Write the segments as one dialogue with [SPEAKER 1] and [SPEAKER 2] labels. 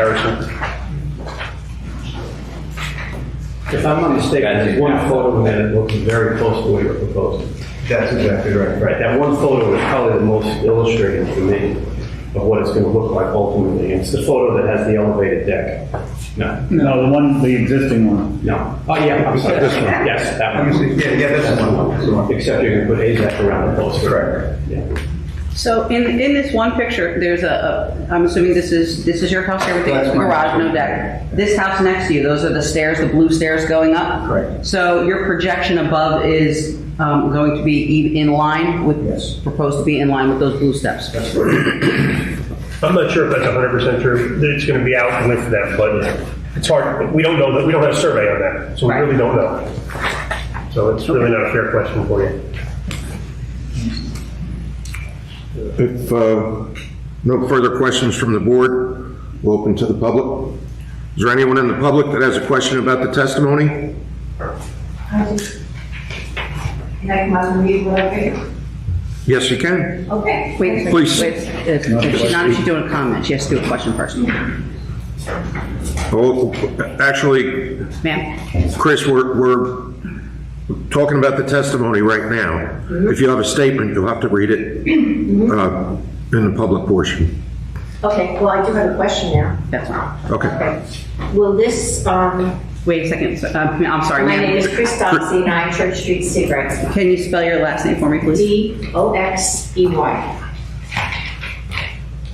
[SPEAKER 1] comparison.
[SPEAKER 2] If I'm not mistaken, there's one photo that looks very close to what you're proposing.
[SPEAKER 3] That's exactly right.
[SPEAKER 2] Right, that one photo is probably the most illustrative to me of what it's gonna look like ultimately. It's the photo that has the elevated deck. No,
[SPEAKER 4] No, the one, the existing one.
[SPEAKER 2] no. Oh, yeah, I'm sorry.
[SPEAKER 1] This one.
[SPEAKER 2] Yes, that
[SPEAKER 3] Let me
[SPEAKER 2] one.
[SPEAKER 3] see. Yeah, yeah, that's the one. That's the one.
[SPEAKER 2] Except you're gonna put AZAC around the poster.
[SPEAKER 3] Correct.
[SPEAKER 2] Yeah.
[SPEAKER 5] So in, in this one picture, there's a, a- I'm assuming this is, this is your house, everything is
[SPEAKER 3] That's my
[SPEAKER 5] garage, no
[SPEAKER 3] house.
[SPEAKER 5] deck. This house next to you, those are the stairs, the blue stairs going up?
[SPEAKER 3] Correct.
[SPEAKER 5] So your projection above is um, going to be e- in line
[SPEAKER 3] Yes.
[SPEAKER 5] with, proposed to be in line with those blue steps?
[SPEAKER 1] I'm not sure if that's 100% true, that it's going to be out with them, but it's hard, we don't know, that we don't have a survey on that, so we
[SPEAKER 5] Right.
[SPEAKER 1] really don't know. So it's really not a fair question for you.
[SPEAKER 6] If uh, no further questions from the board, we'll open to the public. Is there anyone in the public that has a question about the testimony?
[SPEAKER 7] I just- Can I come out and read what I think?
[SPEAKER 6] Yes, you can.
[SPEAKER 7] Okay.
[SPEAKER 5] Wait,
[SPEAKER 6] Please.
[SPEAKER 5] wait, if- if she's not, if she's doing a comment, she has to do a question first.
[SPEAKER 6] Oh, Actually,
[SPEAKER 5] Ma'am?
[SPEAKER 6] Chris, we're we're talking about the testimony right now. If you have a statement, you'll have to read it uh, in the public portion.
[SPEAKER 7] Okay, well, I do have a question now.
[SPEAKER 5] That's all.
[SPEAKER 6] Okay.
[SPEAKER 7] Okay. Will this, um,
[SPEAKER 5] Wait a second, so- um, I'm sorry,
[SPEAKER 7] my name is
[SPEAKER 5] ma'am.
[SPEAKER 7] Chris Doxey, 9 Church Street, Seabright.
[SPEAKER 5] Can you spell your last name for me, please?
[SPEAKER 7] E D-O-X-E-Y.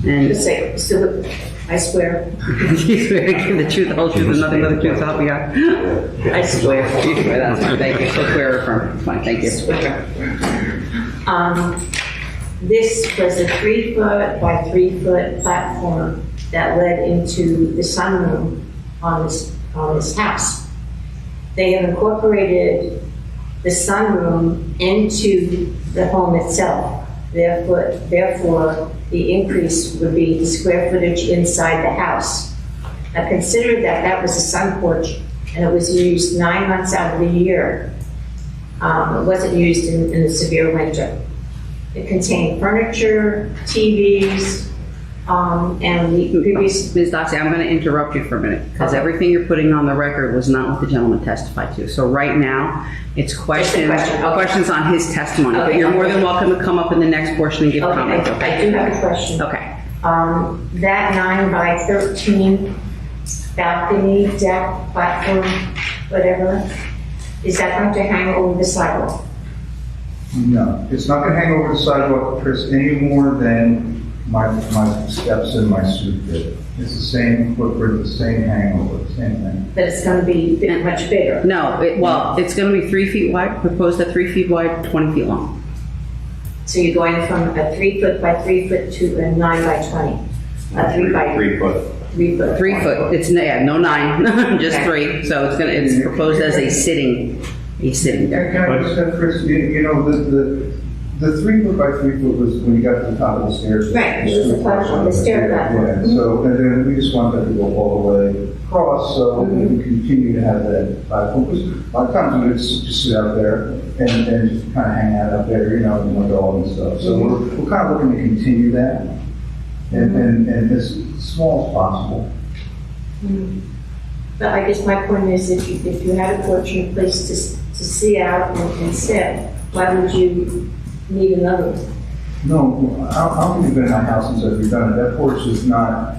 [SPEAKER 5] And
[SPEAKER 7] Just say, so, I swear,
[SPEAKER 5] You swear to give the truth, the whole truth, and nothing but the truth, so help you God. I swear. You swear, that's fine, thank you, so swear or affirm, it's fine, thank you.
[SPEAKER 7] swear. Um, This was a three-foot by three-foot platform that led into the sunroom on this, on this house. They have incorporated the sunroom into the home itself. Therefore, therefore, the increase would be the square footage inside the house. I considered that that was a sun porch, and it was used nine months out of the year. Um, It wasn't used in, in the severe winter. It contained furniture, TVs, um, and the
[SPEAKER 5] Hmm.
[SPEAKER 7] previous
[SPEAKER 5] Ms. Doxey, I'm going to interrupt you for a minute, because everything you're putting on the record was not what the gentleman testified to. So right now, it's questions,
[SPEAKER 7] question, okay.
[SPEAKER 5] questions on his testimony, but
[SPEAKER 7] Okay.
[SPEAKER 5] you're more than welcome to come up in the next portion and give
[SPEAKER 7] Okay,
[SPEAKER 5] comments,
[SPEAKER 7] I- I
[SPEAKER 5] okay?
[SPEAKER 7] do have a question.
[SPEAKER 5] Okay.
[SPEAKER 7] Um, that nine by thirteen balcony, deck, platform, whatever, is that going to hang over the sidewalk?
[SPEAKER 3] No, it's not gonna hang over the sidewalk, Chris, any more than my, my steps in my suit did. It's the same footprint, the same hangover, same thing.
[SPEAKER 7] But it's gonna be bit- much bigger?
[SPEAKER 5] No, it, well, it's going to be three feet wide, proposed at three feet wide, 20 feet long.
[SPEAKER 7] So you're going from a three foot by three foot to a nine by twenty? A three by? Three foot. Three foot.
[SPEAKER 5] Three foot, it's, yeah, no nine, just three, so it's going to, it's proposed as a sitting, a sitting deck.
[SPEAKER 3] Can I just have, Chris, you, you know, the, the, the three foot by three foot was when you got to the top of the stairs.
[SPEAKER 7] Right, it was the platform, the stair Mm-hmm. platform.
[SPEAKER 3] Yeah, so, and then we just wanted to go all the way across, so we
[SPEAKER 7] Mm-hmm.
[SPEAKER 3] can continue to have that platform. 'Cause A lot of times we would s- just sit out there and, and just kind of hang out up there, you know, with my dog and stuff. So we're, we're kind of looking to continue that and, and, and as small as possible.
[SPEAKER 7] But I guess my point is, if you, if you had a porch and a place to, s- to see out and and sit, why would you need another one?
[SPEAKER 3] No, I, I don't think we've been in our house since I've done it. That porch is not,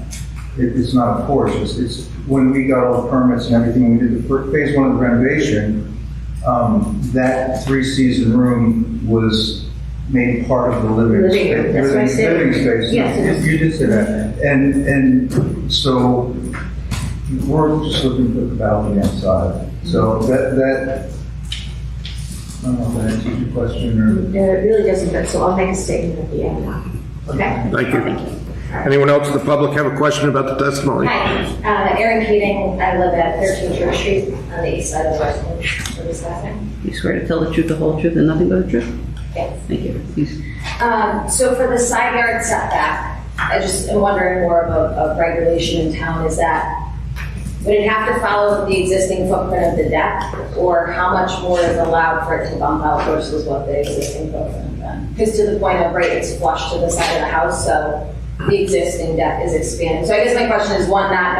[SPEAKER 3] it, it's not a porch. It's, it's, when we got all the permits and everything, we did the fir- phase one of the renovation, um, that three-season room was made part of the living
[SPEAKER 7] Living room,
[SPEAKER 3] space.
[SPEAKER 7] that's what I
[SPEAKER 3] living-
[SPEAKER 7] said.
[SPEAKER 3] Living space.
[SPEAKER 7] Yes.
[SPEAKER 3] You did say that. And, and so we're just looking for the balcony outside. So that, that, I don't know if that answers your question or.
[SPEAKER 7] Uh, It really doesn't, but so I'll make a statement at the end. Okay?
[SPEAKER 6] Thank you. Anyone else in the public have a question about the testimony?
[SPEAKER 8] Hi, uh, Erin Keating, I live at 13 Church Street on the east side of Westwood. What is that name?
[SPEAKER 5] You swear to tell the truth, the whole truth, and nothing but the truth?
[SPEAKER 8] Yes.
[SPEAKER 5] Thank you. Please.
[SPEAKER 8] Um, So for the side yard setback, I just am wondering more of a of regulation in town is that, would it have to follow the existing footprint of the deck? Or how much more is allowed for it to bump out versus what the existing footprint? Because to the point of, right, it's flush to the side of the house, so
[SPEAKER 7] the existing deck is expanding. So I guess my question is, one, not knowing